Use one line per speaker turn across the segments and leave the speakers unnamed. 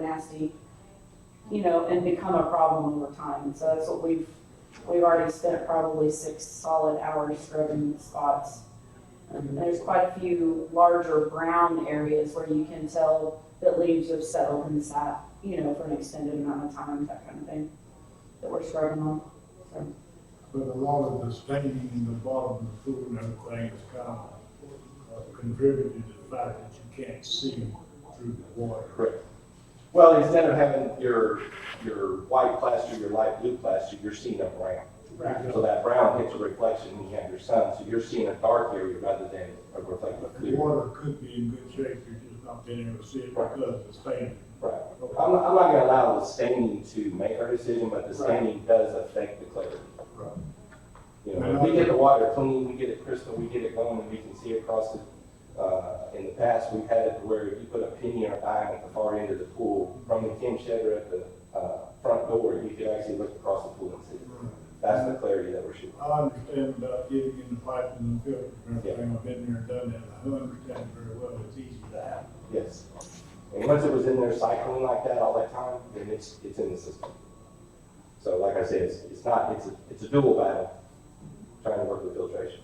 nasty, you know, and become a problem over time. And so that's what we've, we've already spent probably six solid hours scrubbing these spots. And there's quite a few larger brown areas where you can tell that leaves have settled and sat, you know, for an extended amount of time, that kind of thing, that we're scrubbing on.
But a lot of the staining in the bottom of the pool and everything has kind of uh, contributed to the fact that you can't see through the water.
Well, instead of having your, your white plaster, your light blue plaster, you're seeing a brown. So that brown hits a reflection when you have your sun, so you're seeing a dark area rather than a reflective
The
clear.
water could be in good shape, you're just not being able to see it because of the staining.
Right. I'm, I'm not gonna allow the staining to make our decision, but the staining does affect the clarity.
Right.
You know, if we get the water clean, we get it crystal, we get it going, and we can see across it. Uh, in the past, we've had it where if you put a penny or a dime at the far end of the pool, from the Kim Shedder at the, uh, front door, you could actually look across the pool and see. That's the clarity that we're shooting.
I understand about getting in the pipe and the filter and everything, I've been there and done that, I don't understand it very well, it's easy to happen.
Yes. And once it was in there cycling like that all that time, then it's, it's in the system. So like I said, it's, it's not, it's a, it's a dual battle, trying to work with filtration.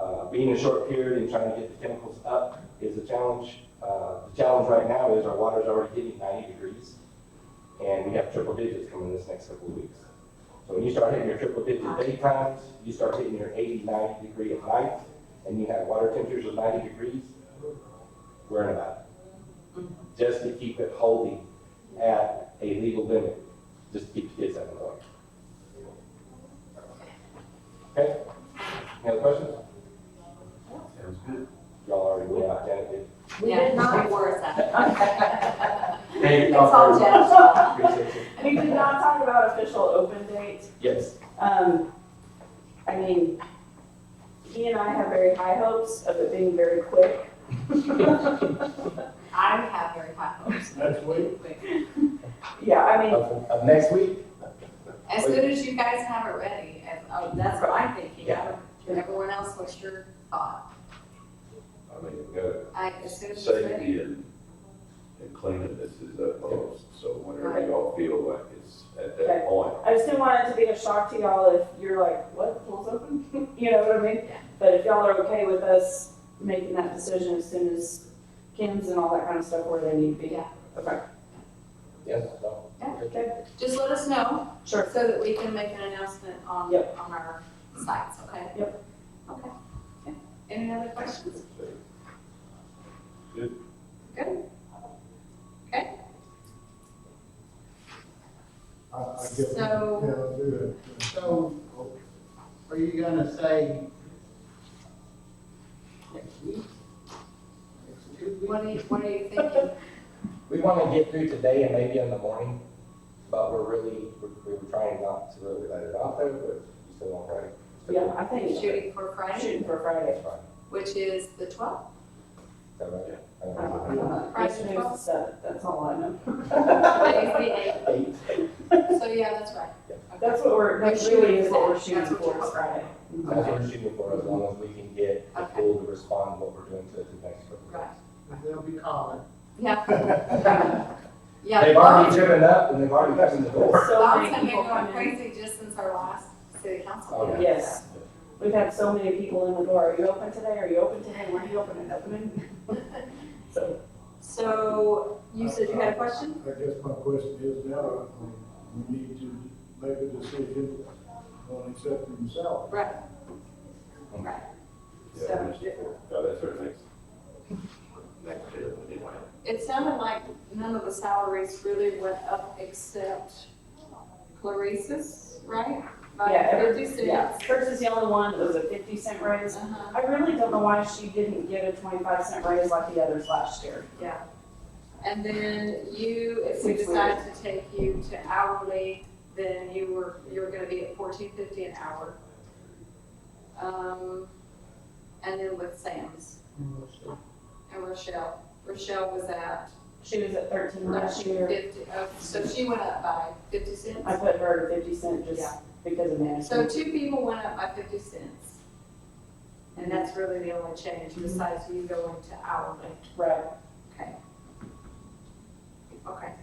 Uh, being a short period and trying to get the chemicals up is a challenge. Uh, the challenge right now is our water's already hitting ninety degrees, and we have triple digits coming this next couple of weeks. So when you start hitting your triple digit daytimes, you start hitting your 80, 90 degree at night, and you have water temperatures of ninety degrees, we're in a battle just to keep it holding at a legal limit, just to keep the kids out of the way. Okay, any other questions?
Sounds good.
Y'all already went out, Janet did.
We
Yeah,
did not.
Before us.
Hey,
It's
y'all
all
very much.
Jen's fault.
Appreciate you.
We did not talk about official open dates,
Yes,
Um, I mean, he and I have very high hopes of it being very quick.
I have very high hopes.
Next week,
Yeah, I mean,
of, of next week,
As soon as you guys have it ready, and, oh, that's what I'm thinking. I don't- Everyone else, what's your thought?
I mean, we've got
I, as soon as it's ready.
safety and, and cleaning this is utmost, so whenever y'all feel like it's at
Okay.
that point.
I just didn't want it to be a shock to y'all if you're like, what, the pool's open? You know what I mean?
Yeah.
But if y'all are okay with us making that decision as soon as Kim's and all that kind of stuff where they need to be.
Yeah.
Okay,
yes, no.
Yeah.
okay,
Just let us know
sure.
so that we can make an announcement on,
Yep.
on our sites, okay? Yep. Okay. Okay. Any other questions? Good.
I, I guess.
So-
Yeah, I'll do it.
So, are you gonna say next week? Next two weeks?
What are you, what are you thinking?
We want to get through today and maybe in the morning, but we're really, we're- we were trying not to really let it out there, but you still want to.
Yeah, I think
Shooting for Friday,
shooting for Friday.
That's fine,
which is the twelfth?
is that right? I don't know.
Uh,
Friday
Yesterday's the
twelfth.
seventh, that's all I know.
Today's the eighth,
Eight.
so yeah, that's right. Okay.
That's what we're, that
We're
really
shooting
is what
for that.
we're shooting
That's what
for,
we're
is Friday.
That's what we're shooting for, as long as we can get the
Okay.
pool to respond to what we're doing to it the next couple
Right.
They'll be calling.
Yeah,
of
yeah.
They've already driven up and they've already gotten the door.
So
Bob's
many
been
people
going
come in.
crazy just since our last city council.
Oh,
meeting.
Yes. We've had so many people in the door, are you open today, are you open today, when are you opening, opening? So,
So you said you had a question?
I guess my question is now, um, we need to make a decision on accepting himself.
Right. Right.
Yeah, we should- No, that's our next, next year, anyway.
It sounded like none of the salaries really went up except Clarice's, right? By
Yeah, every-
fifty
yeah,
cents.
hers is the only one that was a fifty cent raise.
Uh-huh,
I really don't know why she didn't get a twenty-five cent raise like the others last year.
yeah. And then you, if we
Six
decide to take you to hourly, then you were, you were gonna be at fourteen fifty an hour. Um, and then with Sam's and Rochelle, Rochelle was at
She was at thirteen last year,
Fifty, oh, so she went up by fifty cents?
I put her to fifty cent just
Yeah.
because of
So
management.
two people went up by fifty cents. And that's really the only change besides you going to hourly.
Right.
Okay. Okay.